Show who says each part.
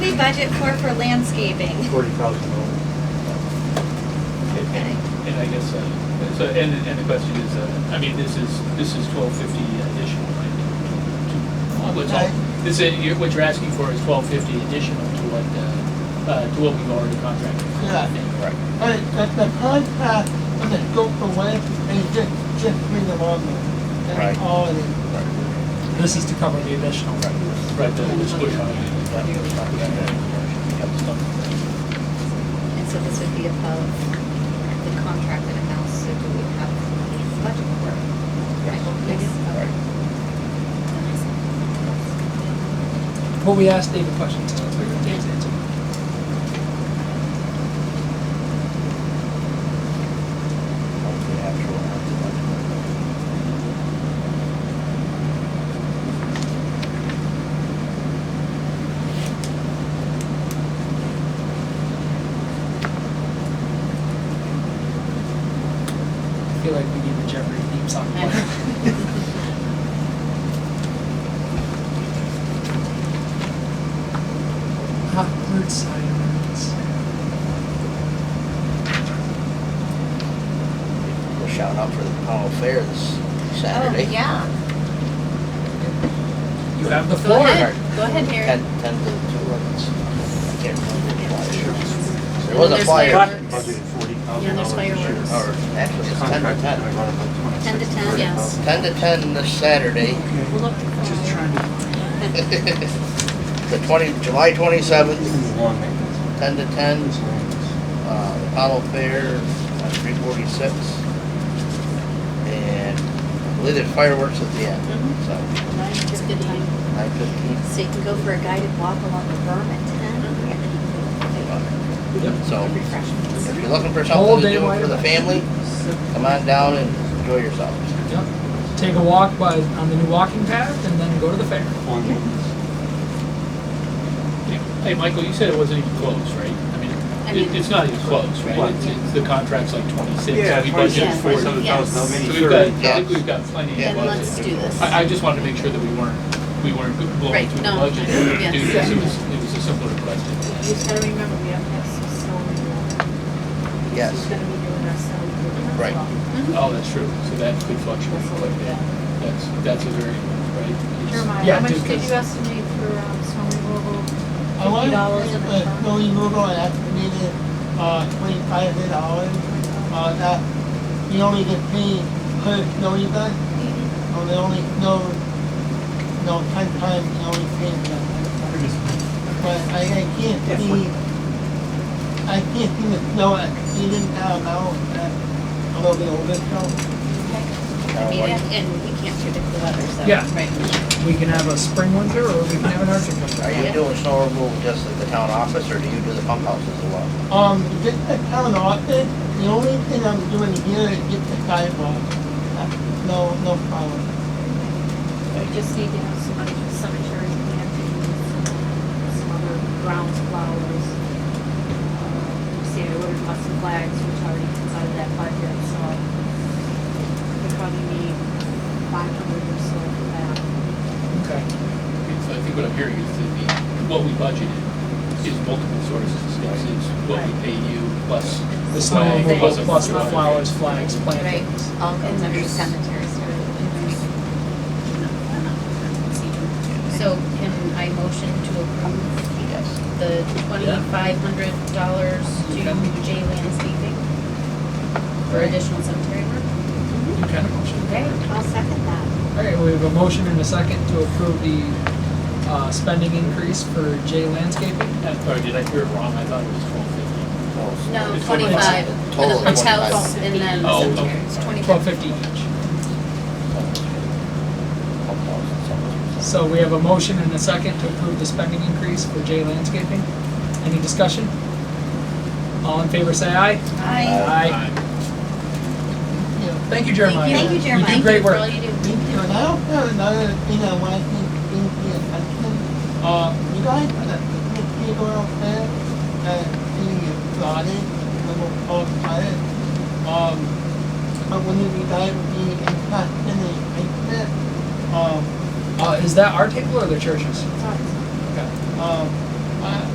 Speaker 1: budget for for landscaping?
Speaker 2: forty thousand dollars.
Speaker 3: And- And and I guess, uh, so, and, and the question is, uh, I mean, this is, this is twelve fifty additional, right? to- to- What's all, this is, you're- what you're asking for is twelve fifty additional to what, uh, uh, to what we've already contracted. for, I
Speaker 4: Yeah.
Speaker 3: think.
Speaker 4: But the, the contract and the scope of work, they just, just bring them on there.
Speaker 5: Right.
Speaker 4: That's all it is.
Speaker 6: This is to cover the additional.
Speaker 3: Right, the, this push on.
Speaker 7: And so this would be above the contracted amount, so do we have money in the budget for it? Right, yes, okay.
Speaker 6: Well, we asked David questions, so let's figure out Dave's answer. I feel like we need the Jeopardy theme song. Awkward silence.
Speaker 5: We're shouting out for the Powell Fair this Saturday.
Speaker 7: Oh, yeah.
Speaker 6: You have the
Speaker 7: Go
Speaker 6: floor.
Speaker 7: ahead, go ahead,
Speaker 5: Ten,
Speaker 7: Harry.
Speaker 5: ten to two, I guess. I can't remember
Speaker 7: And then
Speaker 5: the flyer. There was a
Speaker 7: there's
Speaker 5: flyer,
Speaker 7: fireworks.
Speaker 2: Budgeted forty
Speaker 7: Yeah,
Speaker 2: thousand
Speaker 7: there's
Speaker 2: dollars this year.
Speaker 7: fireworks.
Speaker 5: or actually it's ten to
Speaker 2: Contract, I
Speaker 5: ten.
Speaker 2: run about
Speaker 1: 10 to
Speaker 2: 26,
Speaker 1: 10,
Speaker 7: yes.
Speaker 2: 30,000.
Speaker 5: Ten to ten this Saturday.
Speaker 7: We'll look for
Speaker 2: Just trying to.
Speaker 5: The twenty, July twenty-seventh,
Speaker 2: Long maintenance.
Speaker 5: ten to ten,
Speaker 2: It's long maintenance.
Speaker 5: uh, Apollo Fair, uh, three forty-six. And I believe there's fireworks at the end,
Speaker 6: Mm-hmm.
Speaker 5: so
Speaker 7: It's a good time.
Speaker 5: nine fifteen.
Speaker 1: So you can go for a guided walk along the berm at ten?
Speaker 7: Uh-huh.
Speaker 5: So if you're looking for
Speaker 6: Whole
Speaker 5: something to
Speaker 6: day
Speaker 5: do
Speaker 6: wide
Speaker 5: for the
Speaker 6: open.
Speaker 5: family, come on down and enjoy yourselves.
Speaker 6: Yep. Take a walk by, on the new walking path and then go to the fair.
Speaker 2: Long maintenance.
Speaker 3: Yeah. Hey, Michael, you said it wasn't even close, right? I mean,
Speaker 7: I
Speaker 3: it-
Speaker 7: mean-
Speaker 3: it's not even close,
Speaker 2: What?
Speaker 3: right? It's, it's, the contract's like twenty-six.
Speaker 2: Yeah,
Speaker 3: so we budgeted
Speaker 2: twenty-six,
Speaker 7: Yeah.
Speaker 3: 40.
Speaker 2: forty-seven thousand,
Speaker 7: Yes.
Speaker 2: how
Speaker 3: So
Speaker 2: many?
Speaker 3: we've got, I think
Speaker 5: Yeah.
Speaker 3: we've got plenty of budget.
Speaker 7: Then let's do this.
Speaker 3: I, I just wanted to make sure that we weren't, we weren't blowing
Speaker 7: Right,
Speaker 3: through the
Speaker 7: no,
Speaker 3: budget.
Speaker 7: yes.
Speaker 3: due to this. It was, it was a simpler question.
Speaker 8: You just gotta remember, we have to have some snow removal. She's
Speaker 5: Yes,
Speaker 8: gonna be doing our snow removal.
Speaker 5: Right.
Speaker 3: Oh, that's true, so that could fluctuate quite a bit. That's, that's a very, right? it's-
Speaker 8: Jeremiah,
Speaker 6: Yeah,
Speaker 8: how much
Speaker 6: dude,
Speaker 8: did
Speaker 6: cause-
Speaker 8: you estimate for um, snow removal?
Speaker 4: I want to
Speaker 8: Fifty dollars in
Speaker 4: put
Speaker 8: the
Speaker 4: the
Speaker 8: truck?
Speaker 4: snow removal and estimated, uh, twenty-five hundred dollars. Uh, that, you only get paid per snow event, or they only snow, no, ten times, you only pay them. But I, I can't
Speaker 2: Yeah,
Speaker 4: see,
Speaker 2: forty.
Speaker 4: I can't see the snow exceeding that amount, that, a little bit over, so,
Speaker 7: I mean, and and we can't predict the weather, so.
Speaker 6: Yeah.
Speaker 7: Right.
Speaker 6: We can have a spring winter or we can have an Arctic winter.
Speaker 5: are you doing snow removal just at the town office, or do you do the pump houses as well?
Speaker 4: um, just the town office, the only thing I'm doing here is get the sidewalk. That's No, no problem.
Speaker 8: We just need to have some money for cemetery, we have to do some, some other grounds, flowers. Uh, See, I ordered custom flags, which already comes out of that budget, so we probably need five hundred or so for that.
Speaker 6: Okay.
Speaker 3: it's- I think what I'm hearing is that the, what we budgeted is multiple sources. It's, it's what we pay you plus
Speaker 6: The
Speaker 3: the
Speaker 6: snow
Speaker 3: flag,
Speaker 6: removal
Speaker 3: plus a
Speaker 6: plus
Speaker 3: bunch
Speaker 6: the
Speaker 3: of other
Speaker 6: flowers,
Speaker 3: things.
Speaker 6: flags,
Speaker 7: Right,
Speaker 6: plantings.
Speaker 7: all comes under cemetery, so. So can I motion to approve
Speaker 5: Yes.
Speaker 7: the twenty-five hundred dollars to J landscaping for additional cemetery work?
Speaker 6: You can motion.
Speaker 7: Okay.
Speaker 1: I'll second that.
Speaker 6: All right, we have a motion and a second to approve the uh, spending increase for J landscaping.
Speaker 3: Uh, Or did I hear it wrong? I thought it was twelve fifty.
Speaker 7: No,
Speaker 3: It's
Speaker 7: twenty-five for the
Speaker 5: Total
Speaker 7: punch
Speaker 5: 25.
Speaker 7: house and then
Speaker 3: Oh,
Speaker 7: cemetery.
Speaker 3: okay.
Speaker 7: It's 25.
Speaker 6: Twelve fifty each.
Speaker 5: Pump houses, something.
Speaker 6: So we have a motion and a second to approve the spending increase for J landscaping. Any discussion? All in favor, say aye.
Speaker 1: I,
Speaker 6: Aye. Thank you, Jeremiah.
Speaker 1: Thank you, Jeremiah.
Speaker 6: You
Speaker 1: Thank
Speaker 6: do great
Speaker 7: For all
Speaker 6: work.
Speaker 7: you do.
Speaker 4: Thank you. And I also have another thing I want to bring to your attention. Uh, you guys, the people out there, uh, being exotic, little cold climate, um, I wonder if you guys would be interested in a picnic, um,
Speaker 6: Uh, Is that our table or the church's?
Speaker 8: Sorry.
Speaker 6: Okay.
Speaker 4: um,